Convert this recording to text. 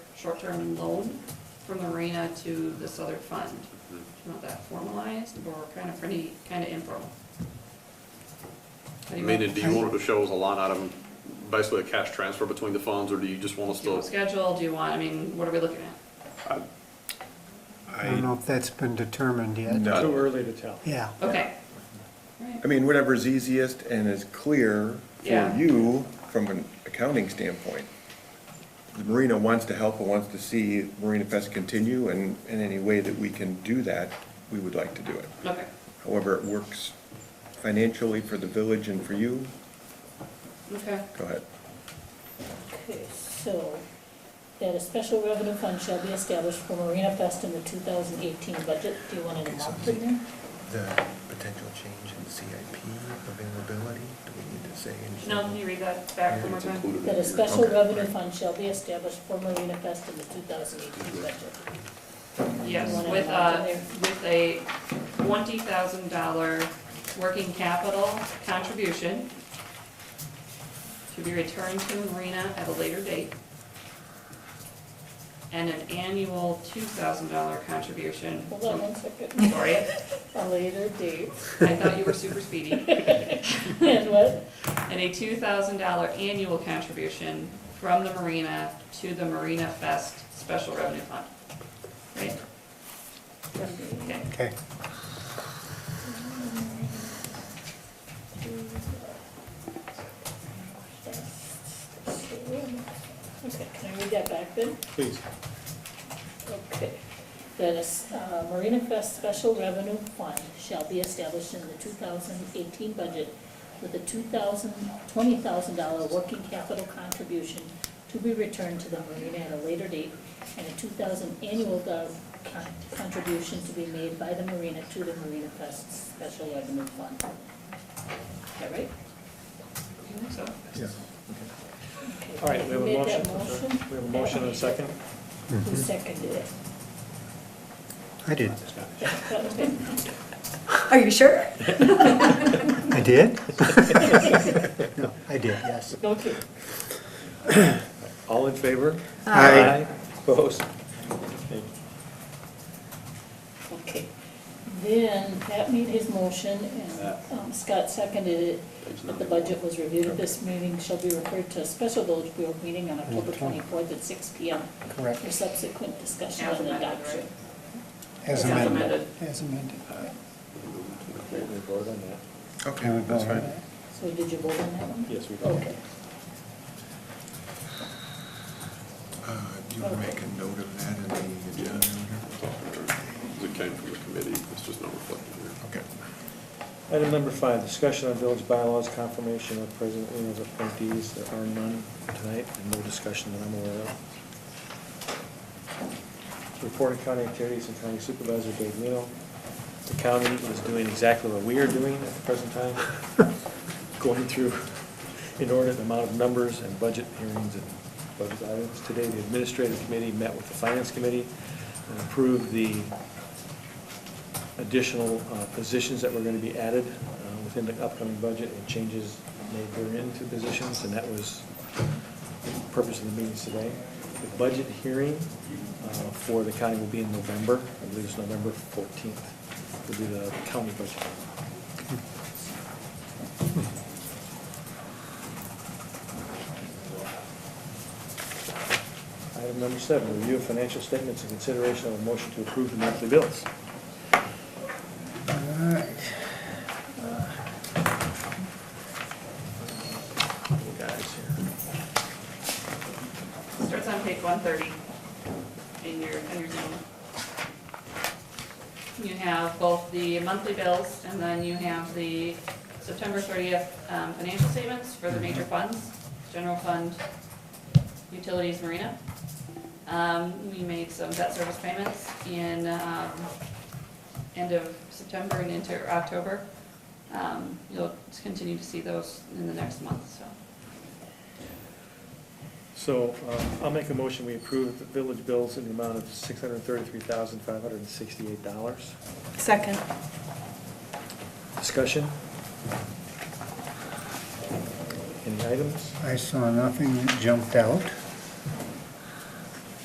short-term loan from the arena to this other fund. Do you want that formalized or kind of pretty, kind of informal? How I do you mean, want- and do you want it to show us a line item, basically a cash transfer between the funds, or do you just want us Do you want to? schedule, do you want, I mean, what are we looking at? I don't know if that's been determined yet. No. Too early to tell. Yeah. Okay. Right. I mean, whatever's easiest and is clear for Yeah. you from an accounting standpoint. The Marina wants to help and wants to see Marina Fest continue, and in any way that we can do that, we would like to do it. Okay, However, it works financially for the village and for you, okay. go ahead. Okay, so, that a special revenue fund shall be established for Marina Fest in the two thousand eighteen budget, do you want an amount in there? The potential change in CIP availability, do we need to say anything? Janelle, can you read that back one more It's time? included in That a here. special Okay. revenue fund shall be established for Marina Fest in the two thousand eighteen budget. Yes, You wanna with add a, that in with a twenty thousand dollar working capital contribution to be returned to Marina at a later date. And an annual two thousand dollar contribution. Hold on one from- second, Sorry, a later date, I thought you were super speedy. and what, And a two thousand dollar annual contribution from the Marina to the Marina Fest Special Revenue Fund. Right? Okay. Okay. Okay, can I read that back then? Please. Okay. That is, uh, Marina Fest Special Revenue Fund shall be established in the two thousand eighteen budget with a two thousand, twenty thousand dollar working capital contribution to be returned to the Marina at a later date, and a two thousand annual do- con- contribution to be made by the Marina to the Marina Fest Special Revenue Fund. Is that right? I think So, Okay. All right, we Who have a made motion. that motion? We have a motion and a second. Who seconded it? I did. Are you sure? I did? No, I did, yes. Okay. All in favor? Aye. Opposed? Thank you. Okay, then Pat made his motion and um, Scott seconded it, that the budget was reviewed at this meeting, shall be referred to a special village board meeting on October twenty-fourth at six P M. Correct. For subsequent discussion As and amended, adoption. right? As As amended. amended. As amended. Okay, we vote on that. Can we Okay, go that's on fine. that? So did you vote on that one? Yes, we did. Okay, Uh, Do you want to make a note of that in the agenda? Because It came from the committee, it's just not reflected here. Okay. Item number five, discussion on village bylaws, confirmation of President Leo's appointees. There are none tonight, and no discussion that I'm aware of. Report of county activities and county supervisor Dave Leo. The county is doing exactly what we are doing at the present time, going through inordinate amount of numbers and budget hearings and budget items. Today, the administrative committee met with the finance committee and approved the additional uh, positions that were going to be added uh, within the upcoming budget and changes made therein to positions, and that was the purpose of the meetings today. The budget hearing uh, for the county will be in November, I believe it's November 14th, will be the county budget. Item number seven, review of financial statements and consideration of a motion to approve the monthly bills. Little guys here. starts on page one thirty in your, in your Zoom. You have both the monthly bills, and then you have the September thirtieth um, financial statements for the major funds, general fund, utilities, marina. Um, We made some debt service payments in um, end of September and into October. Um, You'll continue to see those in the next month, so. So um, I'll make a motion, we approve the village bills in the amount of $633,568. Second. Discussion? Any items? I saw nothing that jumped out.